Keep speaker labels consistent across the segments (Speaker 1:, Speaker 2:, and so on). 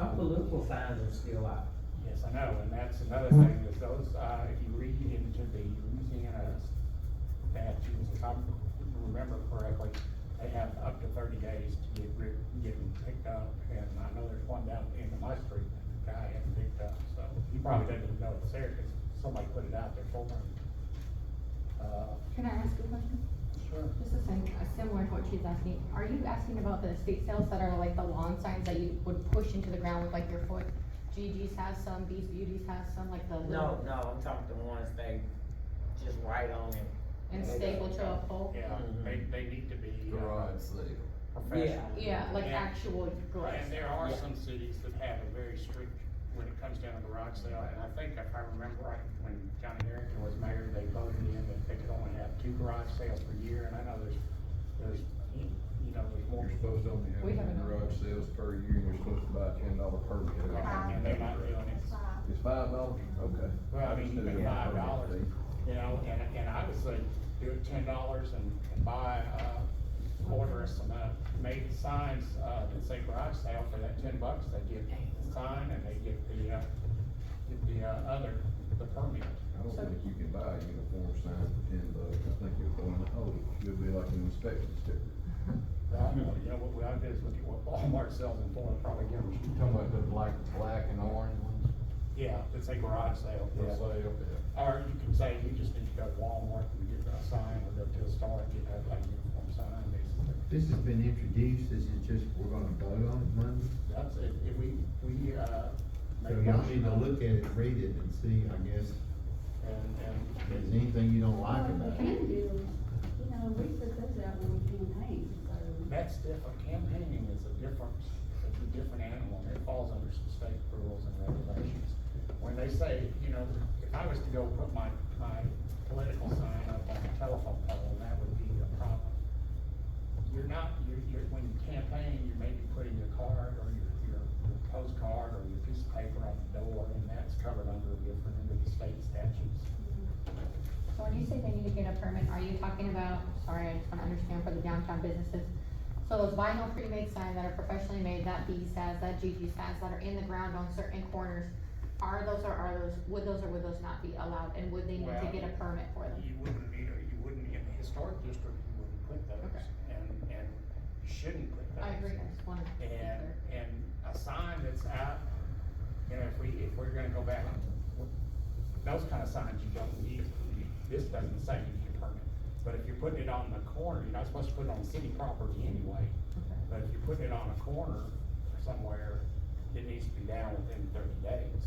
Speaker 1: political signs are still out.
Speaker 2: Yes, I know, and that's another thing, is those, uh, if you read into the Louisiana statutes, if I remember correctly, they have up to thirty days to get rid, get them picked up, and I know there's one down in my street that the guy had picked up, so he probably doesn't even know it's there, because somebody put it out there for him. Uh,
Speaker 3: Can I ask a question?
Speaker 2: Sure.
Speaker 3: This is sim- uh, similar to what she's asking. Are you asking about the estate sales that are like the lawn signs that you would push into the ground with like your foot? Gigi's has some, Bee's Beauties has some, like the
Speaker 1: No,
Speaker 3: little,
Speaker 1: no, I'm talking the ones they just right on and.
Speaker 3: and staple to a pole?
Speaker 2: Yeah, they, they need to be. uh,
Speaker 4: garage sale.
Speaker 2: Professional.
Speaker 3: Yeah, like
Speaker 2: And-
Speaker 3: actual grass.
Speaker 2: And there are
Speaker 1: Yeah.
Speaker 2: some cities that have a very strict, when it comes down to garage sale, and I think if I remember right, when Johnny Harrington was mayor, they voted in that they could only have two garage sales per year, and I know there's, there's, you know, there's more.
Speaker 4: You're supposed to only have
Speaker 3: We have
Speaker 4: two
Speaker 3: enough.
Speaker 4: garage sales per year, and you're supposed to buy a ten dollar permit.
Speaker 2: And they're not doing it.
Speaker 4: It's five dollars, okay.
Speaker 2: Well, I mean, you pay
Speaker 4: Instead of a
Speaker 2: five
Speaker 4: permit
Speaker 2: dollars,
Speaker 4: fee.
Speaker 2: you know, and, and I would say do it ten dollars and, and buy, uh, order us some, uh, made signs, uh, that say garage sale for that ten bucks, they get the sign and they get the, uh, get the, uh, other, the permit.
Speaker 4: I don't think you can buy a uniform sign for ten bucks, I think you're going, oh, you'll be like an inspection sticker.
Speaker 2: Right, well, you know, what we ought to do is look at what Walmart sells in Florida, probably give them,
Speaker 5: You talking about the black, black and orange ones?
Speaker 2: yeah, that say garage sale.
Speaker 5: For sale?
Speaker 2: Or you can say, you just need to go to Walmart and get a sign, or go to a store and get a, like, uniform sign, basically.
Speaker 6: This has been introduced, this is just, we're gonna vote on it Monday?
Speaker 2: That's it, if we, we, uh.
Speaker 6: So y'all need to look at it, read it, and see, I guess,
Speaker 2: And,
Speaker 6: if
Speaker 2: and.
Speaker 6: there's anything you don't like about
Speaker 7: Can
Speaker 6: it.
Speaker 7: do, you know, we put those out when we campaign, so.
Speaker 2: That's different, campaigning is a different, it's a different animal, and it falls under some state rules and regulations. When they say, you know, if I was to go put my, my political sign up on a telephone pole, that would be a problem. You're not, you're, you're, when you campaign, you're maybe putting your card or your, your your postcard or your piece of paper on the door, and that's covered under a different, under the state statutes.
Speaker 3: So when you say they need to get a permit, are you talking about, sorry, I just wanna understand for the downtown businesses? So those vinyl pre-made signs that are professionally made, that B's has, that Gigi's has, that are in the ground on certain corners, are those or are those, would those or would those not be allowed, and would they need to
Speaker 2: Well,
Speaker 3: get a permit for them?
Speaker 2: You wouldn't need, or you wouldn't, in the historic district, you wouldn't put those,
Speaker 3: Okay.
Speaker 2: and, and you shouldn't put those.
Speaker 3: I agree, I just wanna. be
Speaker 2: And,
Speaker 3: clear.
Speaker 2: and a sign that's out, you know, if we, if we're gonna go back, those kind of signs you don't need, this doesn't say you need a permit. But if you're putting it on the corner, you're not supposed to put it on city property anyway,
Speaker 3: Okay.
Speaker 2: but if you're putting it on a corner somewhere, it needs to be down within thirty days.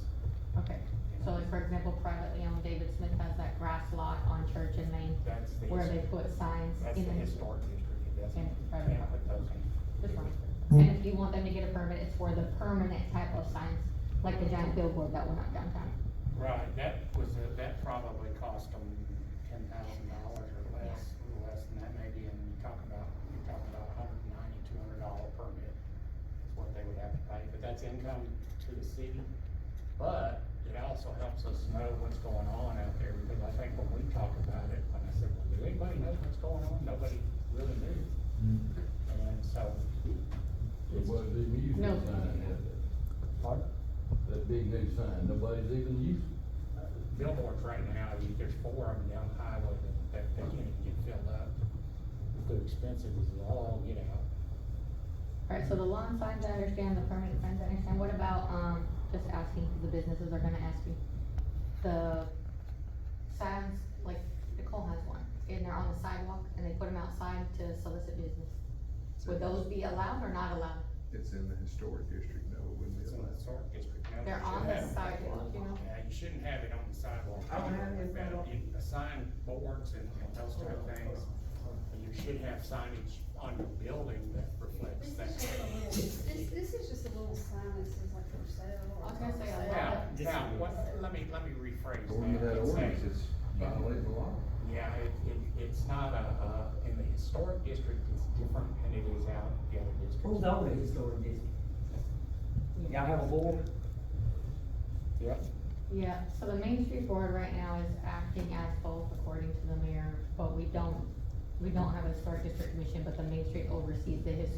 Speaker 3: Okay, so like for example, privately owned, David Smith has that grass lot on Church and Main
Speaker 2: That's the.
Speaker 3: where they put signs
Speaker 2: That's the
Speaker 3: in the.
Speaker 2: historic district, it doesn't,
Speaker 3: And private
Speaker 2: can't put those in.
Speaker 3: Just one. And if you want them to get a permit, it's for the permanent type of signs, like the giant billboard that went up downtown.
Speaker 2: Right, that was, a- that probably cost them ten thousand dollars or less, a little less than that maybe, and you talk about, you talk about a hundred and ninety, two hundred dollar permit is what they would have to pay, but that's income to the city. But it also helps us know what's going on out there, because I think when we talk about it, when I said, well, do anybody know what's going on? Nobody really knew,
Speaker 6: Mm.
Speaker 2: and so.
Speaker 5: Mm-hmm. It was the music
Speaker 3: No.
Speaker 5: sign, out
Speaker 2: Pardon?
Speaker 5: there. that big new sign, nobody's even using it.
Speaker 2: billboards right now, you- there's four of them down the highway that, that they can't even get filled up. They're expensive as all get out.
Speaker 3: Alright, so the lawn signs, I understand, the permanent signs, I understand, what about, um, just asking, 'cause the businesses are gonna ask you. The signs, like Nicole has one, and they're on the sidewalk, and they put them outside to solicit business. Would those be allowed or not allowed?
Speaker 4: It's in the historic district, no, it wouldn't be
Speaker 2: It's in the
Speaker 4: allowed.
Speaker 2: historic district. now.
Speaker 3: They're
Speaker 2: You
Speaker 3: on
Speaker 2: shouldn't
Speaker 3: the
Speaker 2: have it.
Speaker 3: sidewalk, you know?
Speaker 2: Yeah, you shouldn't have it on the sidewalk.
Speaker 1: I don't have it on the-
Speaker 2: You- The uh, sign boards and and those type of things, and you should have signage on your building that reflects
Speaker 7: This
Speaker 2: that.
Speaker 7: is just a little, this, this is just a little sign that says like for sale.
Speaker 3: I was gonna say a
Speaker 2: Now,
Speaker 3: lot.
Speaker 2: now, what, let me, let me rephrase that.
Speaker 4: According to that
Speaker 2: It's saying-
Speaker 4: ordinance, it's violating the law.
Speaker 2: Yeah, it, it, it's not a, uh, in the historic district, it's different than it is out in the other districts.
Speaker 1: Who's on the historic district? Y'all have a board?
Speaker 2: Yep.
Speaker 3: Yeah, so the Main Street Board right now is acting as both according to the mayor, but we don't, we don't have a historic district commission, but the Main Street oversees the historic